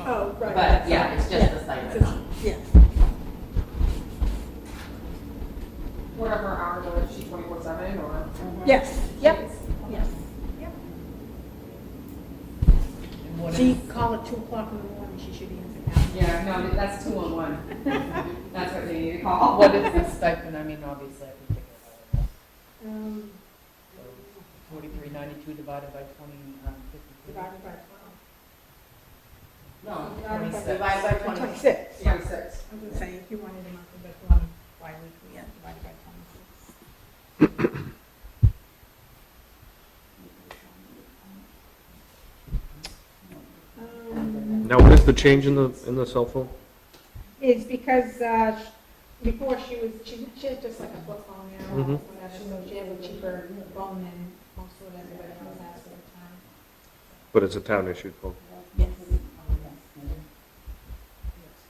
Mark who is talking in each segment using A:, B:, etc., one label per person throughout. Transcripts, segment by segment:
A: Oh, right.
B: But yeah, it's just
A: Yeah.
B: the stipend.
A: It's- Yeah,
C: What are her hours, or is she twenty-four seven, or?
A: yes,
D: Yep.
A: yes.
D: And what
A: She
D: is-
A: called at two o'clock in the morning, she should be in the house.
C: Yeah, no, that's two on one. That's what they need to call.
D: What is the stipend? I mean, obviously, I can figure it out.
A: Um,
D: Forty-three ninety-two divided by twenty, um, fifty-three.
A: divided by twelve.
B: No,
A: Divided by-
B: divided by twenty.
A: Twenty-six.
E: Oh,
B: Twenty-six.
A: I was gonna say, if you wanted a monthly, but you wanted bi-weekly, yeah, divided by twenty-six. Um,
F: Now, what is the change in the, in the cell phone?
A: It's because, uh, sh- before she was, she, she had just like a flip phone now,
F: Mhm.
A: when she moved, she had a cheaper phone than most of everybody else has at the time.
F: But it's a town-issued phone.
A: Yes,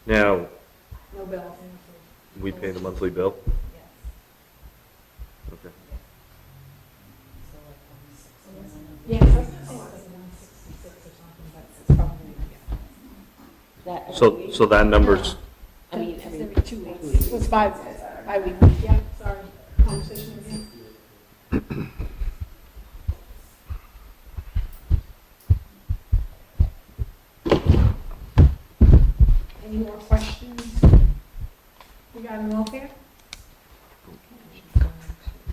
F: Now,
A: no bills.
F: we pay the monthly bill? Okay.
D: So like twenty-six.
A: Yes, I think it's one sixty-six or something, but it's probably, yeah.
E: That
F: So, so that number's,
E: I mean, every
A: It's every two weeks. It was five, bi-weekly, yeah, sorry, conversation again. Any more questions regarding welfare?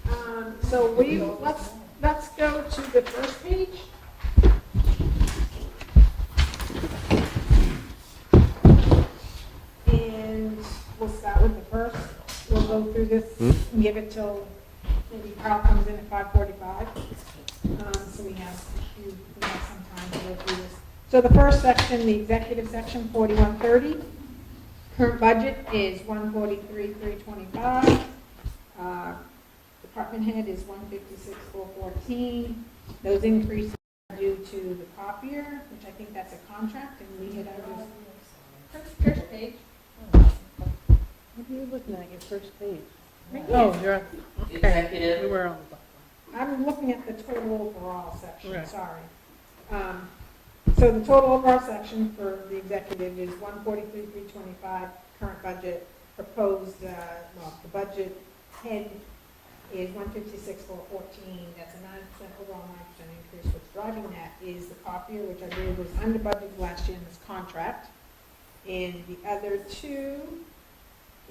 A: Um, so we, let's, let's go to the first page. And we'll start with the first. We'll go through this
F: Hmm?
A: and give it till maybe Carl comes in at five forty-five. Um, so we have, a few- we have some time to go through this. So the first section, the executive section, forty-one thirty. Current budget is one forty-three, three twenty-five. Uh, Department head is one fifty-six, four fourteen. Those increases are due to the copier, which I think that's a contract, and we had already First page.
E: What are you looking at, your first page?
A: Right
E: Oh, you're, we
B: Executive,
E: were on the.
A: I'm looking at the total overall section,
E: Right.
A: sorry. Um, So the total overall section for the executive is one forty-three, three twenty-five, current budget, proposed, uh, well, the budget head is one fifty-six, four fourteen, that's a nine percent overall, nine percent increase. What's driving that is the copier, which I believe was under budget last year in this contract. And the other two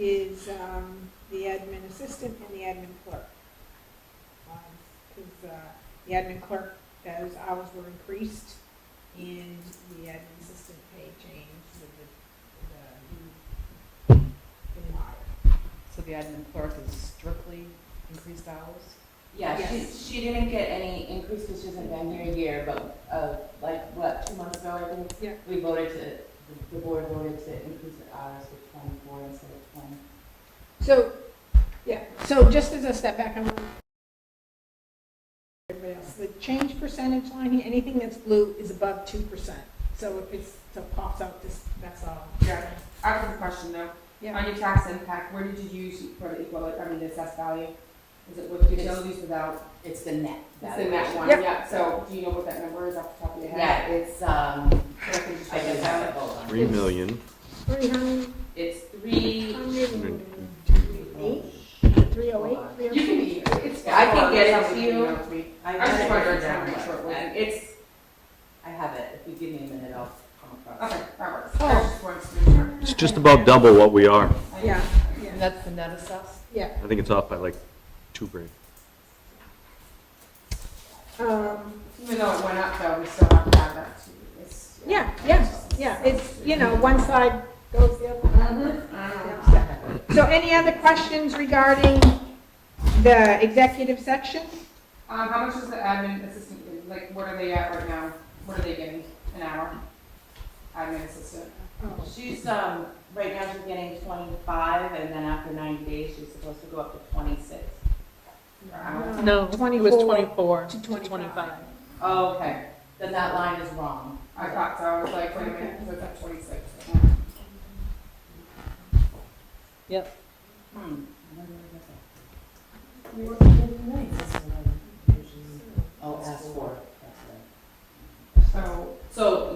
A: is um, the admin assistant and the admin clerk. Because uh, the admin clerk, those hours were increased, and the admin assistant pay changed with the, the, the model.
D: So the admin clerk is strictly increased hours?
B: yeah,
A: Yes.
B: she, she didn't get any increase because she hasn't been here a year, but, uh, like, what, two months ago, I think?
A: Yeah.
B: We voted to, the- the board voted to increase the hours to twenty-four instead of twenty.
A: So, yeah, so just as a step back, I'm. Everybody else, the change percentage line, here, anything that's blue is above two percent. So if it's, so it pops out, this, that's all.
C: Yeah, I have a question though.
A: Yeah.
C: On your tax impact, where did you use for the equal, I mean, the assessed value? Is it with utilities without,
B: It's the net.
C: it's in that one,
A: Yep.
C: yeah, so do you know what that number is off the top of your
B: Yeah,
C: head?
B: it's, um,
C: So I can just
B: I
C: write
B: guess that's
C: it down.
B: a whole one.
F: three million,
A: Three hundred,
B: It's three,
A: hundred and eight, three oh eight,
C: You
A: three
C: can be, it's.
B: I can get it to you.
C: Something else we-
B: I
C: I just wanted
B: wrote
C: to
B: down
C: make sure it
B: what-
C: wasn't, it's,
B: I have it, if you give me a minute, I'll come across.
C: okay,
B: it.
C: that works. I
A: Oh.
C: just wanted to make sure.
F: it's just about double what we are.
A: oh. Yeah, yeah,
D: And that's the net assessed?
A: yeah.
F: I think it's off by like two grand.
A: Um,
C: Even though it went up though, we still have to add that to this.
A: yeah, yes, yeah, it's, you know, one side goes the other.
C: Mhm.
A: Yeah, so. So any other questions regarding the executive section?
C: Um, how much is the admin assistant, getting? like, what are they at right now? What are they getting an hour? Admin assistant.
B: She's, um, right now she's getting twenty-five, and then after ninety days, she's supposed to go up to twenty-six.
C: per hour.
E: No, it was
A: 24
E: twenty-four
A: to
E: to
A: 25.
E: twenty-five.
B: Oh, okay, then that line is wrong.
C: I thought so, I was like, wait a minute, 'cause it's at twenty-six.
E: Yep.
B: Hmm. Oh, S four.
C: So,
B: So